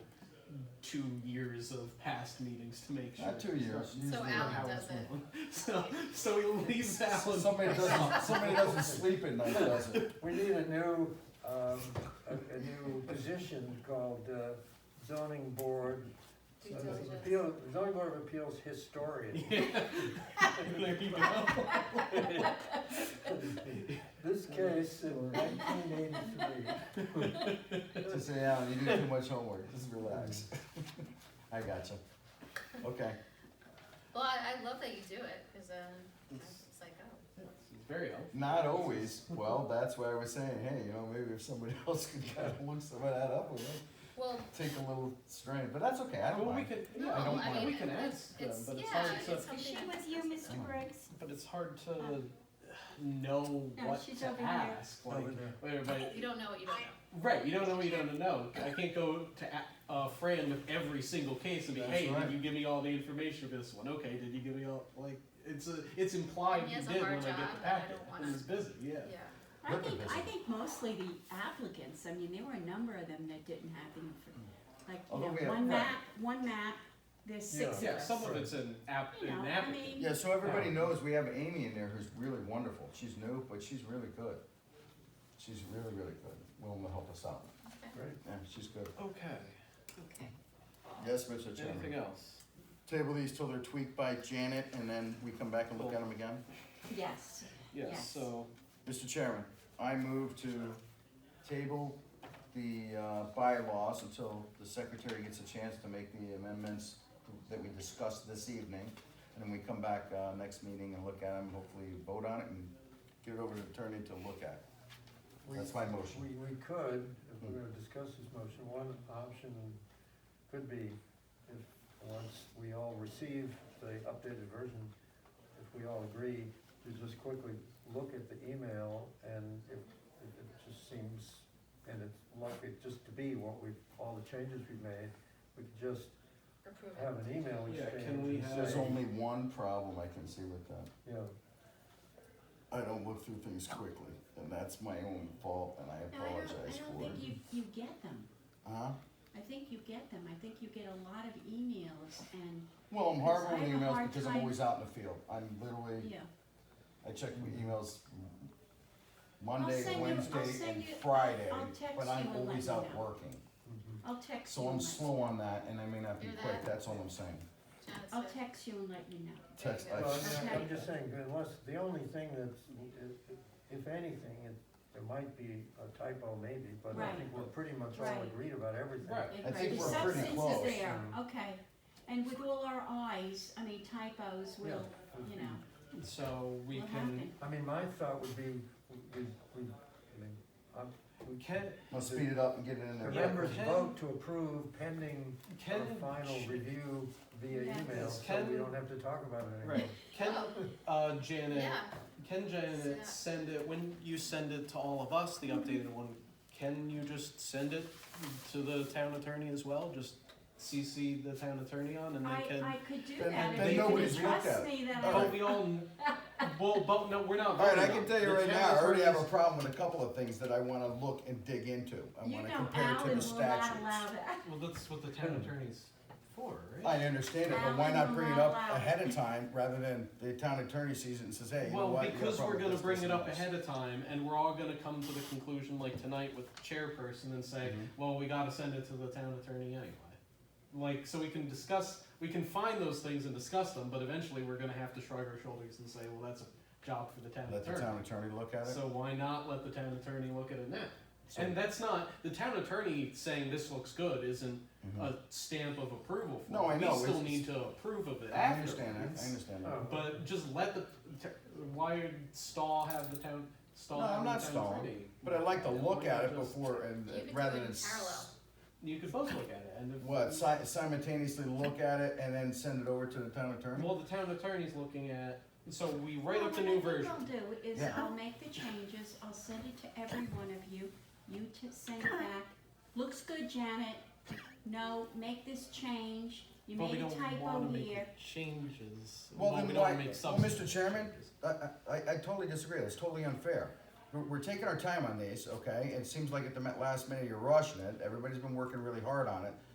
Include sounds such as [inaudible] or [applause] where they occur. two years of past meetings to make sure. Not two it's years, not usually. how Alan it's does it. wrong. [laughs] So, so we lease Alan. [laughs] Somebody doesn't, somebody doesn't sleep at night, does it? We need a new, um, a, a new position called uh, zoning board, Due uh, diligence. appeal, zoning board of appeals [laughs] historian. [laughs] Yeah. [laughs] there you go. This case in nineteen eighty-three. [laughs] Just say, Alan, you do too much homework, just relax. [laughs] I gotcha. Okay, Well, I, I love that you do it, cause, um, I was just like, oh, It's very helpful. not always, well, that's why I was saying, hey, you know, maybe if somebody [laughs] else could kind of look some of that up, we might well, take a little strain, but that's okay, I don't Well, we mind. could, no, yeah, I don't I mind. mean, we can it's, ask them, it's, but it's yeah, hard to- it's something. She was you, Mr. Oh. Briggs. but it's hard to Um, know no, what she's to over here. ask. Like, Over there. wait, everybody- You don't know what you don't know. right? You don't know what you don't know. I can't go to a, a friend with every single case and be, That's hey, right. did you give me all the information for this one? Okay, did you give me all like? It's a, it's implied And he you has a did when hard I get job, the and I packet. don't and wanna- it's busy, yeah. Yeah, I Working think, I business. think mostly the applicants, I mean, there were a number of them that didn't have the, infor- like, you Although Hmm. Oh, we know, have- one right. map, one map, there's six of Yeah, us. some of it's an app, You know, an I app. mean- Yeah, so everybody knows we have Amy in there who's really wonderful. She's new, but she's really good. She's really, really good. Willing to help us out. Right. Yeah, she's good. Okay. okay. Yes, Mr. Anything Chairman. else? Table these till they're tweaked by Janet and then we come back and look at them again. Yes, Yes. Yes. So Mr. Chairman, I move to table the uh, bylaws until the secretary gets a chance to make the amendments that we discussed this evening. And then we come back uh, next meeting and look at them, hopefully vote on it and get it over to the attorney to look at. We- That's my motion. We, we could, if we're Hmm. gonna discuss this motion, one option could be if, once we all receive the updated version, if we all agree, to just quickly look at the email and if, if it just seems, and it's likely just to be what we've, all the changes we've made, we could just Approve have it. an email Yeah, exchange can we and have- There's say, only one problem I can see with that. you know, I don't look through things quickly, and that's my own fault, and I no, I don't, I apologize don't for think it. you, you get them, Huh? I think you get them, I think you get a lot of emails and, Well, I'm hard Because I on have a emails hard because I'm time- always out in the field. I'm literally, yeah. I check my emails Monday, send you- I'll Wednesday, send and you- I'll- Friday, I'll text but you I'm and let always you out know. working. mhm. I'll text So you I'm and let- slow on that, and I may not be Do quick, that. that's all I'm saying. Janet's I'll good. text you and let you know. There you Text, go. I- Well, I'm- Okay. I'm just saying, unless, the only thing that's, if anything, it, there might be a typo maybe, but I Right. think we're pretty much all Right. agreed about everything. Right. I think The we're pretty Substance close. is there, Mm-hmm. Mm. okay, and with all our eyes, I mean typos will, you know, so we will can happen, I mean, my thought would be, we, we, I mean, um, I'm, we can I'll speed it up and get it in the there. Yeah. members Ken- vote to approve pending a can final review via Yes. email, Yes, so we Ken- don't have to talk about it anymore. Right. Can uh, Janet Oh, Yeah, can Janet Snap. send it when you send it to all of us the Mm-hmm. updated one? Can you just send it to the town attorney as well? Just CC the town attorney on, and I, they can. I could do Then- that, then if you nobody's could looked at trust it. me that All I, But we all. [laughs] well, but no, we're not. All right, I voting on can it. tell you The right town now, I already have a attorney's- problem with a couple of things that I wanna look and dig into. I you wanna know, compare to Alan the will not allow statutes. that. Well, that's what the town attorney's for, right? I understand it, but why Alan not will bring it not up allow it. ahead of time rather than the town attorney sees it and says, hey, you know well, what? you have a because we're problem going with to this, bring this, it and up this." ahead of time, and we're all going to come to the conclusion, like tonight with chairperson, and say, Mhm. well, we got to send it to the town attorney anyway. Like, so we can discuss, we can find those things and discuss them, but eventually we're going to have to shrug our shoulders and say, well, that's a job for the town Let the attorney. town attorney look at it. so why not let the town attorney look at it now? So- and that's not the town attorney saying this looks good isn't Mhm. a stamp of approval for No, it. I we know, still it's- need to approve of it. I understand that, I afterwards. understand that. Oh. But just let the, why would Stahl have the town, Stahl No, have I'm the not town stalling, attorney? But I like to Yeah, look why not at it just- before and You could do rather it in than. s- parallel. You could both look at it and if. What, si- simultaneously look at it and then send it over to the town attorney? Well, the town attorney's looking at, so we write Well, up the what new I think version. I'll do is Yeah. I'll make the changes, I'll send it to every one of you, you to send it back, looks good, Janet, no, make this change, you But we made a don't wanna typo make here. Changes. Well, but then we don't why- make well, substantive Mr. Chairman, changes. I, I, I totally disagree. That's totally unfair. We're, we're taking our time on these, okay? It seems like at the ma- last minute you're rushing it. Everybody's been working really hard on it.